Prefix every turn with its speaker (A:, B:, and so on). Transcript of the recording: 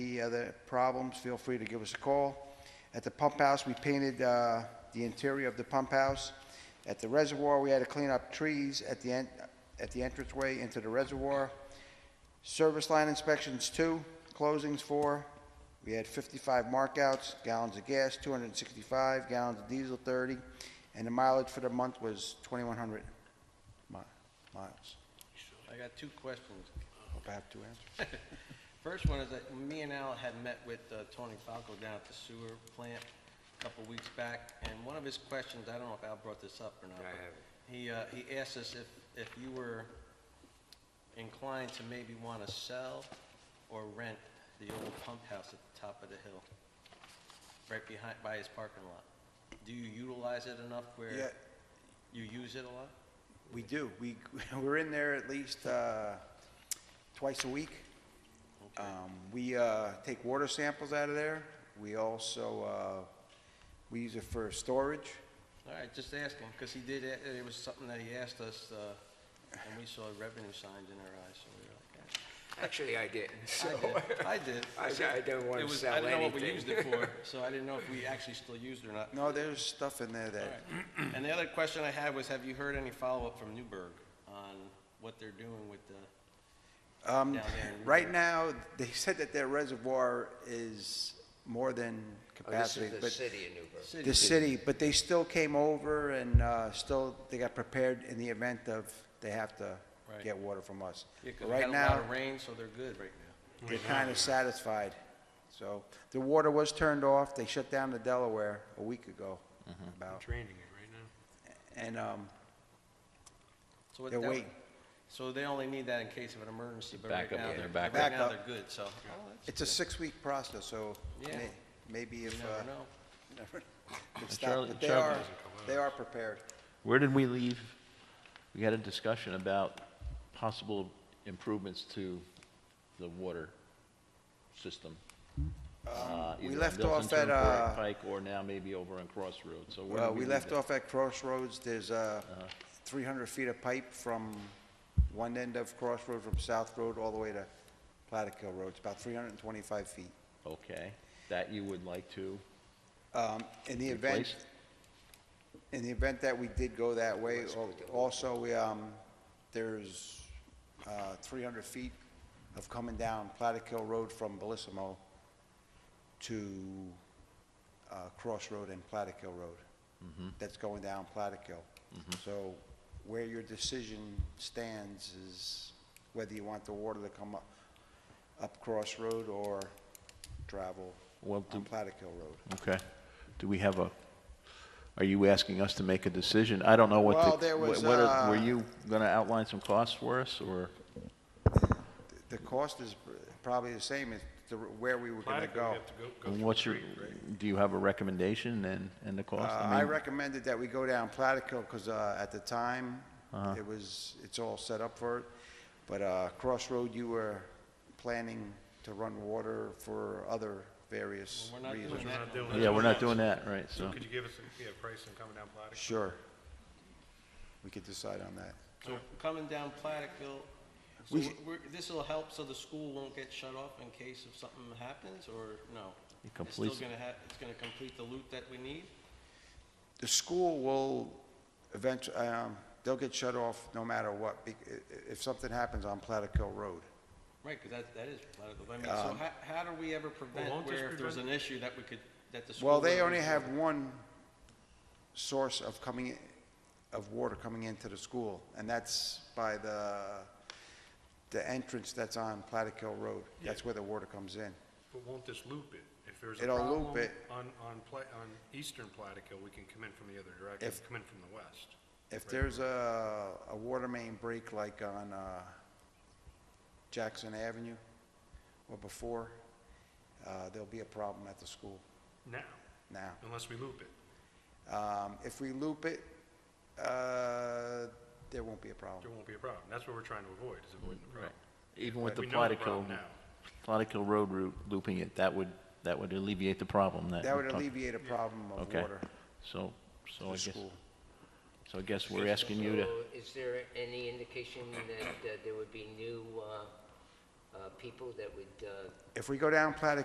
A: any other problems, feel free to give us a call. At the pump house, we painted uh, the interior of the pump house. At the reservoir, we had to clean up trees at the, en- at the entranceway into the reservoir. Service line inspections, two. Closings, four. We had 55 markouts, gallons of gas, 265, gallons of diesel, 30, and the mileage for the month was 2,100 mi- miles.
B: I got two questions.
A: Hope I have two answers.
B: First one is that me and Al had met with uh, Tony Falco down at the sewer plant a couple weeks back, and one of his questions, I don't know if Al brought this up or not. but He, uh, he asked us if, if you were inclined to maybe want to sell or rent the old pump house at the top of the hill, right behind, by his parking lot. Do you utilize it enough
A: Yeah.
B: where you use it a lot?
A: We do. We, we're in there at least uh, twice a week.
B: Okay.
A: Um, We uh, take water samples out of there. We also, uh, we use it for storage.
B: All right, just asking, because he did, a- it was something that he asked us, uh, and we saw revenue signs in our eyes, so we were like,
C: Actually, I didn't, so.
B: "Eh." I did, I did.
C: I said I don't wanna
B: It was-
C: sell
B: I didn't know what we
C: anything.
B: used it for, so I didn't know if we actually still used it or not.
A: No, there's stuff in there
B: All
A: that,
B: right. And the other question I had was, have you heard any follow-up from Newburgh on what they're doing with the,
A: Um,
B: down there in
A: Right
B: Newburgh.
A: now, they said that their reservoir is more than
C: Oh, This
A: capacity,
C: is the
A: but
C: city of Newburgh.
B: city?
A: the city, but they still came over and uh, still, they got prepared in the event of they have to
B: Right.
A: get water from us.
B: Yeah, 'cause
A: But
B: we had
A: Right
B: a lot
A: now,
B: of rain, so they're good right now.
A: they're kind of satisfied. So the water was turned off. They shut down the Delaware a week ago about,
D: It's raining it right now.
A: and um,
B: So what-
A: They're
B: that-
A: waiting.
B: So they only need that in case of an emergency, but right
E: Backup,
B: now,
E: yeah,
B: they're,
E: backup.
B: right now, they're
A: Backup.
B: good, so. Oh, that's
A: it's a six-week process, so
B: Yeah.
A: may- maybe
B: good.
A: if,
B: You
A: uh,
B: never know.
A: it's not,
E: Charlie-
A: but they
E: Charlie-
A: are, they are prepared.
E: Where did we leave? We had a discussion about possible improvements to the water system. Uh,
A: we
E: either on
A: left
E: Milton
A: off at,
E: Turnpike
A: uh,
E: Pike or now maybe over on Crossroads, so where did
A: Well,
E: we
A: we
E: leave
A: left
E: it?
A: off at Crossroads, there's uh, 300 feet of pipe from one end of Crossroads, from South Road all the way to Plattekill Road, it's about 325 feet.
E: Okay, that you would like to
A: Um, In the event,
E: replace?
A: in the event that we did go that way, al- also, we, um, there's uh, 300 feet of coming down Plattekill Road from Bellissimo to uh, Crossroad and Plattekill Road. That's going down Plattekill. So where your decision stands is whether you want the water to come up, up Crossroad or travel
E: Well,
A: on
E: do-
A: Plattekill Road.
E: Okay, do we have a, are you asking us to make a decision? I don't know what the.
A: Well, there
E: what-
A: was,
E: what are- Were
A: uh,
E: you gonna outline some costs for us, or?
A: The cost is probably the same as the, where we were gonna
D: Platica,
A: go.
D: we have to go, go
E: And
D: through
E: what's
D: the
E: your,
D: street, right?
E: do you have a recommendation and, and the
A: Uh,
E: cost?
A: I
E: mean,
A: recommended that we go down Platico, because, uh, at the time, it was, it's all set up for it. But, uh, Crossroad, you were planning to run water for other various
B: Well, we're not
A: reasons.
B: doing
D: We're not doing
E: Yeah,
D: that.
E: we're not doing that, right,
D: So
E: so,
D: could you give us a, yeah, price on coming down Platica?
A: Sure. We could decide on that.
B: So coming down Platicville, so
A: We-
B: we're, this'll help so the school won't get shut off in case if something happens, or no? It's
E: It
B: still
E: completes-
B: gonna have, it's gonna complete the loop that we need?
A: The school will eventually, um, they'll get shut off no matter what, bec- i- i- if something happens on Platico Road.
B: Right, because that, that is Platicville. I mean,
A: Um,
B: so how, how do we ever prevent
D: won't this
B: where if there's an
D: prevent-
B: issue that we could, that the school?
A: Well, they
B: wouldn't
A: only
B: use it?
A: have one source of coming, i- of water coming into the school, and that's by the, the entrance that's on Plattekill Road. That's where the water comes in.
D: But won't this loop it? If there's a
A: It'll loop
D: problem
A: it.
D: on, on Pla, on eastern Platica, we can come in from the other direction,
A: If-
D: come in from the west.
A: If there's a, a water main break like on uh, Jackson Avenue or before, uh, there'll be a problem at the school
D: Now,
A: now.
D: unless we loop it,
A: Um, If we loop it, uh, there won't be a problem.
D: there won't be a problem. That's what we're trying to avoid, is avoiding the problem.
E: even with the
D: We know the
E: Platico,
D: problem now.
E: Platico Road route looping it, that would, that would alleviate the problem that.
A: That
E: we're
A: would
E: talking-
A: alleviate a problem of
E: Okay,
A: water
E: so,
A: to
E: so I
A: the
E: guess,
A: school.
E: so I guess we're asking you to,
C: So Is there any indication that uh, there would be new uh, uh, people that would uh,
A: If we go down Platte